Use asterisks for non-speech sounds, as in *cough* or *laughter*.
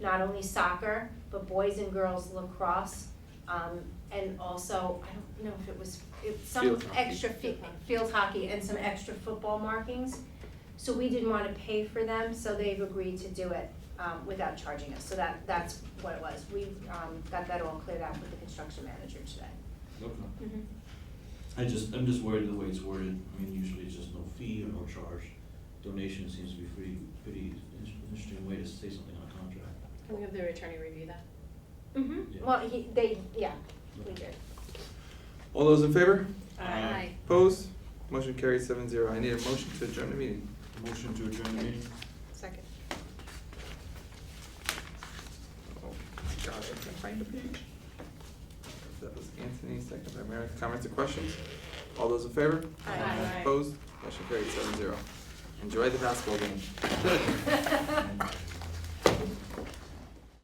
not only soccer, but boys and girls lacrosse. Um, and also, I don't know if it was, it, some Field hockey. extra fi- field hockey and some extra football markings. So we didn't wanna pay for them, so they've agreed to do it, um, without charging us, so that, that's what it was. We, um, got that all cleared out with the construction manager today. Okay. I just, I'm just worried the way it's worded, I mean, usually it's just no fee or no charge. Donation seems to be pretty, pretty in- interesting way to say something on a contract. Can we have the attorney review that? Mm-hmm, Yeah. well, he, they, yeah, we did. All those in favor? Aye. Opposed? Motion carries seven zero. I need a motion to adjourn the meeting. Motion to adjourn the meeting? Second. Oh, God, I can't find the page. That was Anthony, second by Meredith. Comments or questions? All those in favor? Aye. Aye. *laughs* Opposed? Motion carries seven zero. Enjoy the basketball game.